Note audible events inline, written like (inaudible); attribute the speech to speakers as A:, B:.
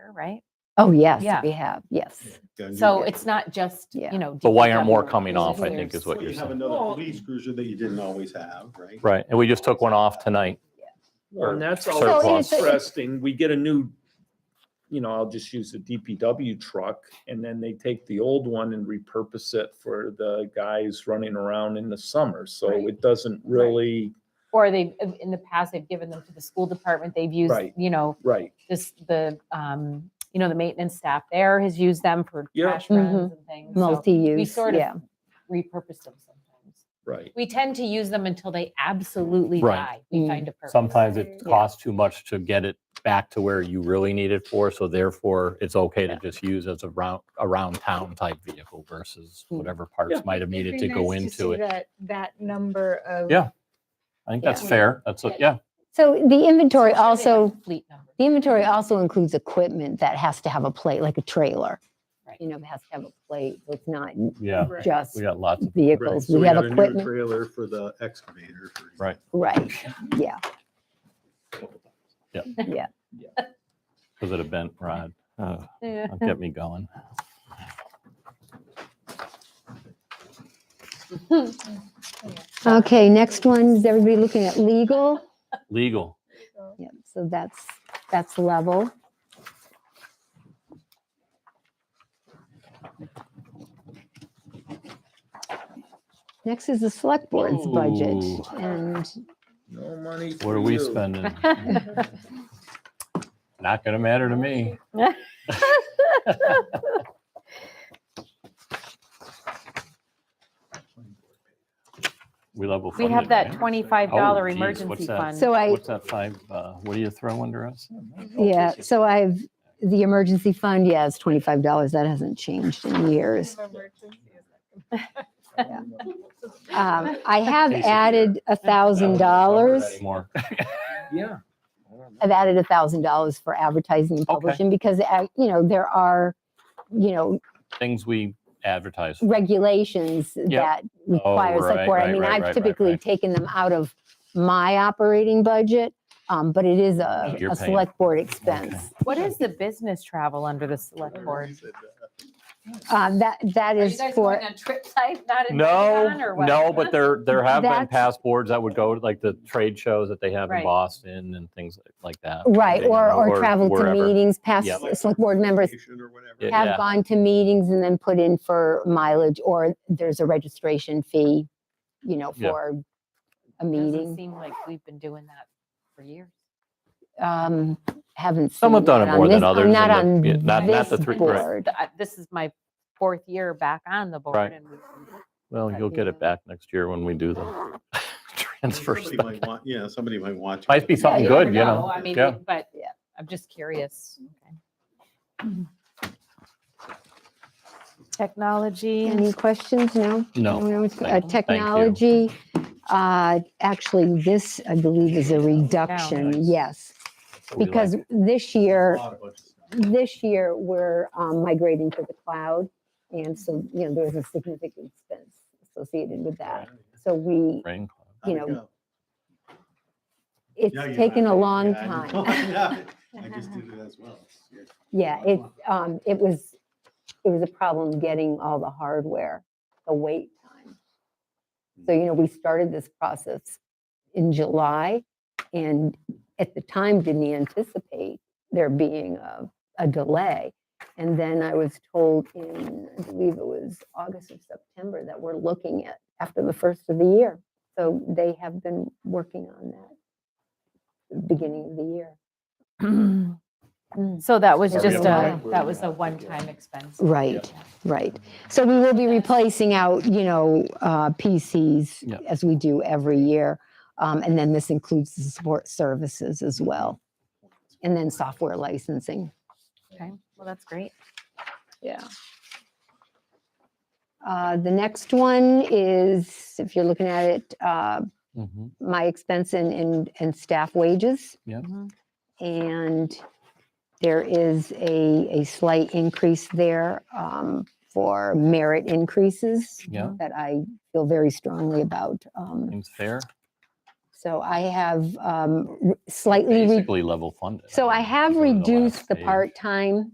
A: here, right?
B: Oh, yes,
A: Yeah.
B: we have, yes.
C: Then you-
A: So it's not just,
B: Yeah.
A: you know.
D: But why
A: DPW
D: aren't more coming
A: versus
D: off, I think,
A: theirs.
D: is what
C: Well,
D: you're
C: you have
D: saying.
C: another
E: Well-
C: police cruiser that you didn't always have, right?
D: Right, and we just took one off tonight.
E: Well, And that's
D: So
E: always
D: it's a-
E: interesting. We get a new, you know, I'll just use the DPW truck and then they take the old one and repurpose it for the guys running around in the summer. So
A: Right.
E: it doesn't really,
A: Or they, have in the past, they've given them to the school department. They've used,
E: Right.
A: you know,
E: right.
A: this, the, um, you know, the maintenance staff there has used them for
E: Yeah.
A: trash runs and things. So we
B: Multi-use,
A: sort of
B: yeah.
A: repurpose them sometimes.
E: Right.
A: We tend to use them until they absolutely
D: Right.
A: die. We
B: Mm.
A: find a purpose.
D: Sometimes it costs too much to get it back to where you really need it for, so therefore it's okay to just use as a round, around town type vehicle versus
B: Mm.
D: whatever parts
E: Yeah.
D: might have needed to
F: It'd be
D: go
F: nice
D: into
F: see
D: it.
F: That, that number of.
D: Yeah. I think that's
B: Yeah.
D: fair. That's, a- yeah,
B: So the inventory
A: Especially like
B: also,
A: Fleet number.
B: the inventory also includes equipment that has to have a plate, like a trailer.
A: Right.
B: You know, it has to have a plate, so it's not
D: yeah,
F: Right.
B: just
D: we got lots. of
B: vehicles,
C: So
B: we have
C: got a new
B: equipment,
C: Trailer for the excavator. for example.
D: Right.
B: right,
A: (laughs)
B: yeah.
D: Was it a bent rod? Uh,
A: Yeah.
D: That kept me going.
B: Okay, next one, is everybody looking at legal?
D: Legal.
B: Yep, so that's, that's level. Next is the select board's budget,
D: Ooh.
B: and
E: No money.
D: What
E: for
D: are we
B: (laughs)
E: you.
D: spending? Not gonna matter to me. We level
A: We
D: funded.
A: have that
D: right?
A: twenty-five
D: Oh,
A: dollar
D: geez,
A: emergency
D: what's that?
A: fund.
B: so I,
D: What's that five, uh, what do you throw under us?
B: yeah, so I've, the emergency fund, yeah, it's twenty-five dollars, that hasn't changed in years. Um, I have
D: Piece of
B: added a thousand dollars.
D: More.
E: Yeah.
B: I've added a thousand dollars for advertising and
D: Okay.
B: publishing because, uh, you know, there are, you know,
D: Things we advertise. for.
B: regulations that requires
D: Oh, right,
B: select board. I
D: right,
B: mean,
D: right, right,
B: I've
D: right,
B: typically
D: right.
B: taken them out of my operating budget, um, but it is a,
D: You're
B: a
D: paying.
B: select board expense.
A: What is the business travel under the select board?
C: uh,
B: Um, that, that
A: Are
B: is
A: you guys
B: for,
A: going on trips I've not invited on,
D: No,
A: or what?
D: no, but there, there have been
B: That's-
D: past boards that would go to like the trade shows that they have in
A: Right.
D: Boston and things like that.
B: right,
D: you
B: or,
D: know,
B: or travel to
D: wherever.
B: meetings, past
D: Yep.
B: select board members
C: Or whatever.
D: Yeah.
B: have gone to meetings and then put in for mileage, or there's a registration fee, you know,
D: Yeah.
B: for a
A: Doesn't
B: meeting.
A: seem like we've been doing that for years.
B: Um, haven't seen.
D: Some have done it
B: on
D: more than
B: this- oh,
D: others,
B: Not on
D: and the- yeah, not-
A: not the
B: this
D: three- right.
B: board.
A: Th- I- This is my fourth year back on the board
D: Right.
A: and we-
D: Well, you'll get it back next year when we do the
B: (gasps)
D: (laughs) transfers.
C: (laughs) Somebody might want, yeah, somebody might want. to.
D: Might be something
A: you
D: good,
A: never
D: you know,
A: I mean,
D: yeah.
A: we- but
B: Yeah.
A: I'm just curious. Okay. Technology.
B: Any questions? No?
D: No,
B: No, it's- uh,
D: thank- thank you.
B: Technology, uh, actually, this, I believe, is a reduction, yes.
D: We like-
B: Because this year,
C: A lot of budget stuff.
B: this year, we're um, migrating to the cloud. And so, you know, there's a significant expense associated with that. So we,
D: Rain cloud.
B: you
C: How'd it
B: know,
C: go?
B: it's
C: Yeah, you
B: taken a
C: laughed.
B: long
C: Yeah, I know. (laughs)
B: time.
C: I just did it as
B: (laughs)
C: well. Yeah.
B: Yeah, it, um, it was, it was a problem getting all the hardware, the wait time. So, you know, we started this process in July and at the time didn't anticipate there being a, a delay. And then I was told in, I believe it was August or September, that we're looking at after the first of the year. So they have been working on that beginning of the year.
A: So that was
B: Yeah, we
A: just
B: have
A: a,
B: one.
A: that was a one-time expense.
B: Right, right. So we will be replacing out, you know, uh,
D: Yeah.
B: PCs as we do every year. Um, And then this includes the support services as well. And then software licensing.
A: Okay, well, that's great.
B: Yeah. Uh, The next one is, if you're looking at it, uh,
D: Mhm.
B: my expense and, and, and staff wages.
D: Yep.
A: Mhm.
B: And there is a, a slight increase there um, for merit increases
D: Yeah,
B: that I feel very strongly about. Um,
D: seems fair.
B: So I have um, r- slightly, re-
D: Basically level funded.
B: so I
D: mean,
B: have
D: go to the last
B: reduced the
D: page.
B: part-time